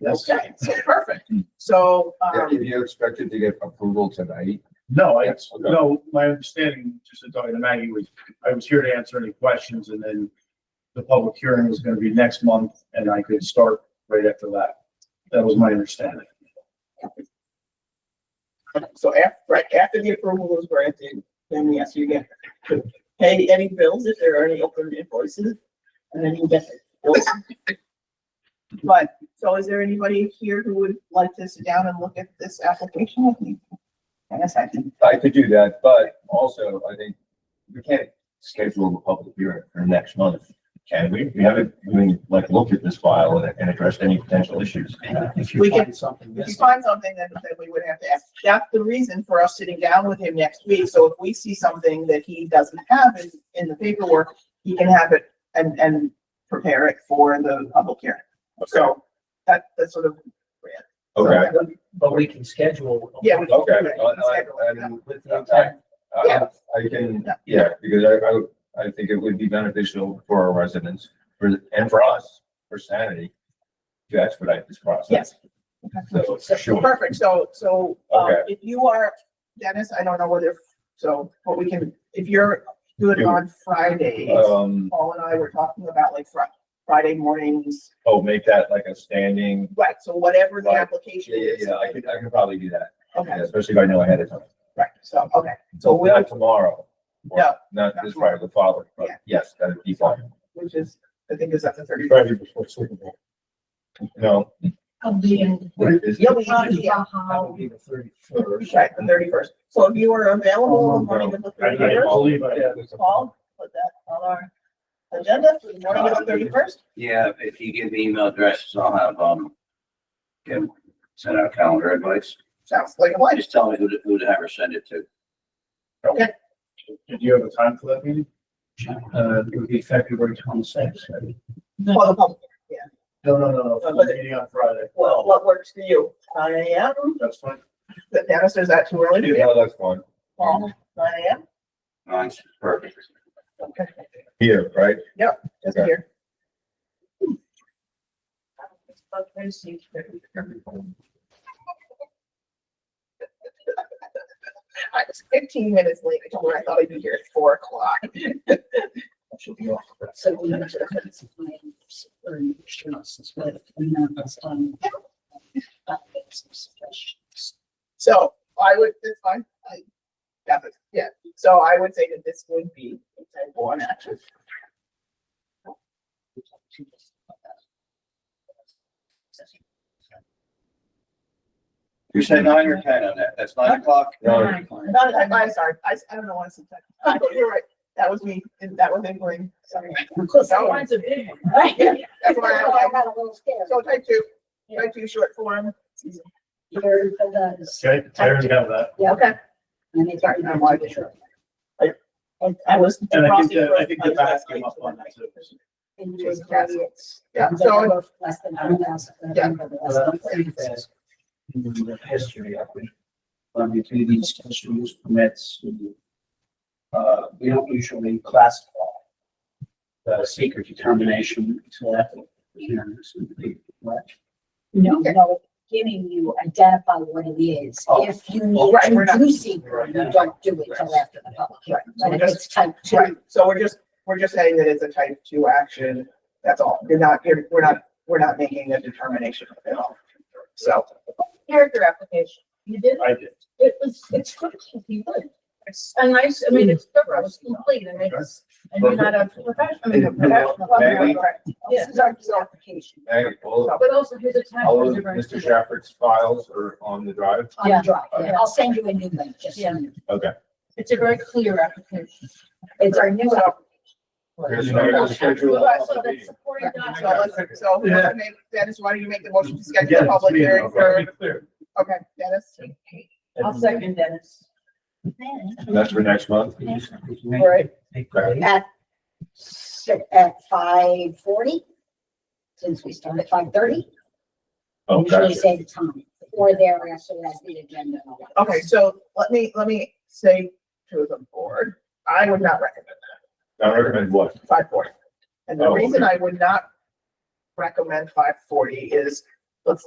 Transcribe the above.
Yes. Okay, so perfect. So, Yeah, um, If you expected to get approval tonight, No, I, Yes, okay. no, my understanding, just in talking to Maggie, was I was here to answer any questions and then the public hearing was gonna be next month and I could start right after that. That was my understanding. so after, right after the approval was granted, then we asked you again, to pay any bills if there are any open invoices, and then you get the bills. But, so is there anybody here who would like to sit down and look at this application with me? I guess I can. I could do that, but also I think we can't schedule a public hearing for next month. Can we? We haven't, even like looked at this file and, and addressed any potential issues. If We you can- find something If you missing, find something that, that we would have to ask, that's the reason for us sitting down with him next week, so if we see something that he doesn't have in, in the paperwork, he can have it and, and prepare it for the public hearing. So, that, that's sort of. Okay, but we can schedule. a Yeah. meeting okay. Right, Uh, schedule I- it, I'm- With the I intent, Yeah. I- uh, I can, yeah, because I, I, would- I think it would be beneficial for our residents, for, and for us, for sanity, to expedite this process. Yes. So, sure, Perfect, so, so, um, Okay. if you are, Dennis, I don't know whether, so, but we can, if you're good Yeah. on Fridays, Uh, um, Paul and I were talking about like Fri- Friday mornings, oh, make that like a standing, right, so whatever the Right. application yeah, yeah, is. yeah, I could, I could probably do that. Okay, Yeah, Especially if I know ahead of time. right, so, okay, so So we'll. not tomorrow. or No, Not not this tomorrow. Friday, the following, but Yeah. yes, that'd be fine. which is, I think is at the thirty. Friday before Super Bowl. No. of the, what it is- Yeah, we of usually, the, yeah, that would uh, be the thirty-first. right, the thirty-first. So if you are available Oh, in the morning of the I, I thirty-first, believe I have. Paul, put that on our agenda for the morning of the thirty-first. Yeah, if you give me email addresses, I'll have, um, Kim send out calendar advice. Sounds like a lunch. Just tell me who to, who to have her send it to. Did you have a time for that meeting? Uh, it would be February twenty-sixth. For the public. No, no, no, no, for the meeting on Friday. Well, what works for you? Nine AM? That's fine. The Dennis, is that too early to do? No, that's fine. Paul, nine AM? Mine's perfect. Okay, Here, right? just Okay. here. I was fifteen minutes late. I told her I thought I'd be here at four o'clock. She'll be off. so we have to. Or, you should not suspend, we know that's done. Uh, some suggestions. So I would, it's fine, I, yeah, but- yeah, so I would say that this would be a type one action. You said nine or ten on that. That's nine o'clock. No, Not, I'm, I'm sorry, I, I don't know why I said that. You're right, that was me, and that was England, sorry. Close, that one's a big one, right? Yeah, That's That's why why I- I got a little scared. So type two, type two short form. Your, that is. Okay, I already have that. Yeah, Okay. and it's already on my picture. I- And I was. And I think crossing that, I think the my back last came name up on to that too. and just carry it. Yeah, Because so, they're both Less than hundred thousand. Yeah. Well, Uh, I think that in the history of it, um, between these special use permits, we, uh, we don't usually classify the secret determination until after, you know, this would be, what, No, no, giving you, identify what it is. Oh. If you Oh, right, we're need not- to do secret, you don't do it till after the public hearing. But if it's type right, two, so we're just, we're just saying that it's a type two action, that's all, you're not, you're, we're not, we're not making a determination at all. So. character application. You did, I did. it was, it's good, you did. It's a nice, I mean, it's thorough, it's complete, and it's, and you're not a professional, I mean, a professional. Maybe. Yeah. this is our application hey, all, But also his all of attachments are very. Mr. Shafford's files are on the drive. on the drive. Okay. I'll send you a new link, just so you know. Okay. It's a very clear application. It's our new So- Here's another schedule of Right, So public that's meeting. supporting So documents. let's, so who's Yeah. gonna make- Dennis, why don't you make the motion to Yeah, schedule a it's public me. hearing Okay, for, be clear. okay, Dennis? I'll Mhm. second Dennis. plan. That's for next month. Right. At, si- at five forty, since we start at five thirty, Okay. usually say the time, or thereafter as the agenda. allows. Okay, so let me, let me say to the board, I would not recommend I recommend what? five forty. And the Oh, reason I would not recommend five forty is, let's